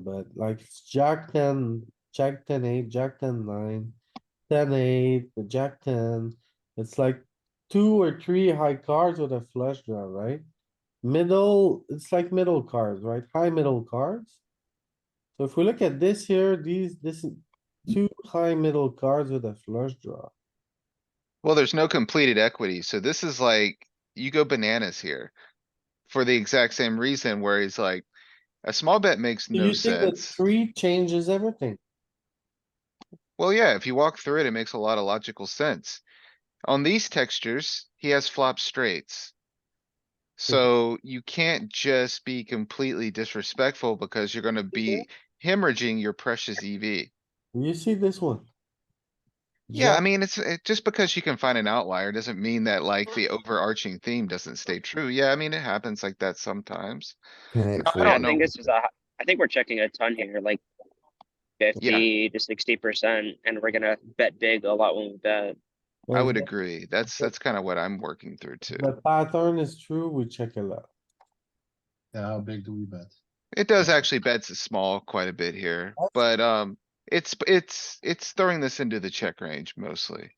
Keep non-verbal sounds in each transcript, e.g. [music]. but like it's jack ten, jack ten eight, jack ten nine, ten eight, the jack ten. It's like two or three high cards with a flush draw, right? Middle, it's like middle cards, right? High middle cards. So if we look at this here, these, this is two high middle cards with a flush draw. Well, there's no completed equity, so this is like, you go bananas here. For the exact same reason where he's like, a small bet makes So no You think that sense. three changes everything. Well, yeah, if you walk through it, it makes a lot of logical sense. On these textures, he has flop straights. So you can't just be completely disrespectful because you're gonna be hemorrhaging your precious E EV. You see this one? Yeah, I Jack- mean, it's, it, just because you can find an outlier doesn't mean that like the overarching theme doesn't stay true. Yeah, I mean, it happens like that sometimes. I I don't think know. this is a, I think we're checking a ton here, like fifty to sixty percent, and we're gonna bet big a lot when we bet. I Well, would agree. That's, that's kinda what I'm working through too. The pattern is true, we check a lot. Yeah, how big do we bet? It does actually bets it small quite a bit here, That's- but, um, it's, it's, it's throwing this into the check range mostly.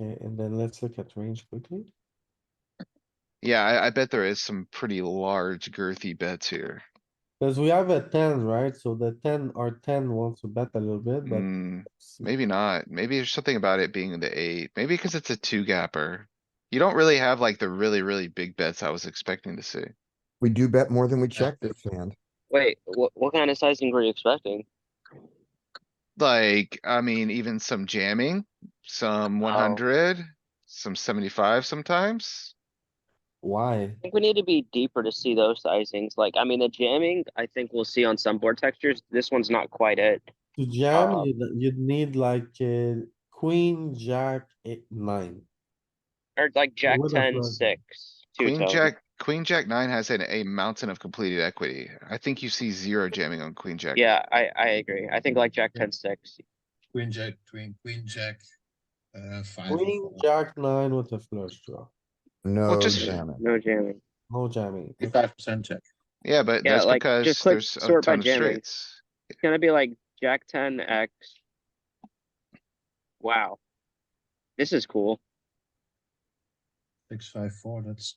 Okay, and then let's look at range quickly. Yeah, I, I bet there is some pretty large girthy bets here. Cause we have a ten, right? So the ten or ten wants to bet a little bit, but. Hmm, it's- maybe not. Maybe there's something about it being the eight, maybe because it's a two gapper. You don't really have like the really, really big bets I was expecting to see. We do bet more than we check this hand. Wait, what, what kind of sizing were you expecting? Like, I mean, even some jamming, some Oh. one hundred, some seventy-five sometimes. Why? I think we need to be deeper to see those sizings, like, I mean, the jamming, I think we'll see on some board textures, this one's not quite it. To jam, Oh. Uh, you'd, you'd need like, uh, queen, jack, eight, nine. Or like jack would have ten, loved it. six, two uh, Queen, tone, jack, queen, jack nine has an, a mountain of completed equity. I think you see zero jamming on queen, jack. yeah, I, I agree, I think like jack ten, six, Queen, jack, queen, queen, jack, uh, five. or Queen, four. jack, nine with a flush draw. No just- jamming. no jamming. No jamming. Fifty-five percent check. Yeah, but Yeah, that's like, just because click there's a sort by ton of jamming. straights. It's gonna be like Jack ten X. Wow. This is cool. Six, five, four, that's,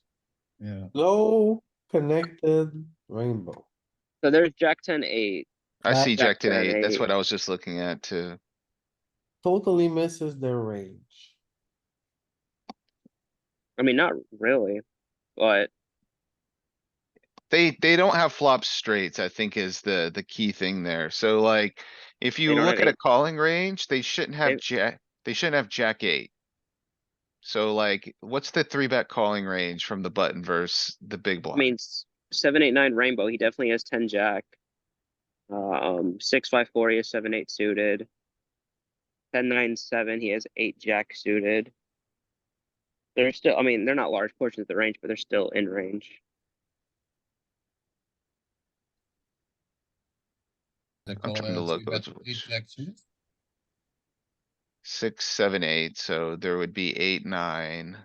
yeah. Low connected rainbow. So there's Jack ten eight. I Uh, see jack Jack ten ten eight. That's eight. what I was just looking at too. Totally misses their range. I mean, not really, but They, they don't have flop straights, I think is the, the key thing there. So like, if you don't look have at a eight. calling range, they shouldn't They- have jack, they shouldn't have jack eight. So like, what's the three bet calling range from the button versus the big I blind? mean, s- seven eight nine rainbow. He definitely has ten Jack. Um, six five four. He has seven eight suited. Ten nine seven. He has eight Jack suited. They're still. I mean, they're not large portions of the range, but they're still in range. They I'm call trying to it look three bet what's queen, which. jack suited. Six, seven, eight, so there would be eight, nine.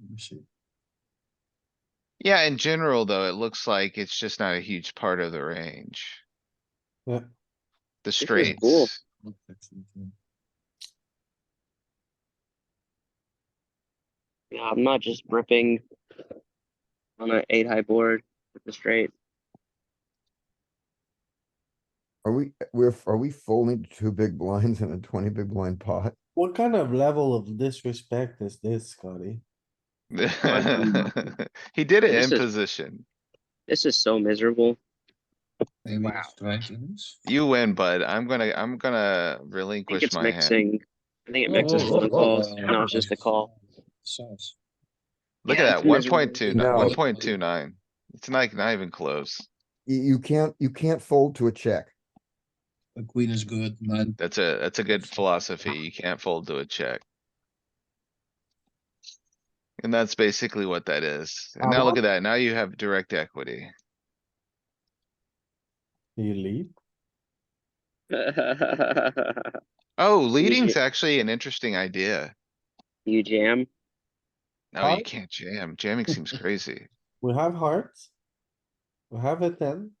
Let me see. Yeah, in general, though, it looks like it's just not a huge part of the range. Yeah. The is [laughs] cool. straights. Look, jack suited, yeah. Yeah, I'm not just ripping on an eight high board with the straight. Are we, we're, are we folding two big blinds in a twenty big blind pot? What kind of level of disrespect is this, Scotty? He did it This in is- position. This is so miserable. Maybe Wow. it's twenty minutes. You win, bud. I'm gonna, I'm gonna I think relinquish it's my hand. mixing. I think it mixes Oh, phone calls. No, it's just a [laughs] call. Sauce. Look Yeah, at it's that, one point two, No. one point two nine. It's not, not even close. You, you can't, you can't fold to a check. A queen is good, nine, That's a, that's a good philosophy. You can't fold to a check. And that's basically what that is. And now look at that. Now you have direct equity. You lead? Oh, leading's actually an interesting idea. Oh, you jam. No, Huh? you can't jam. Jamming seems crazy. We have hearts. We have a ten.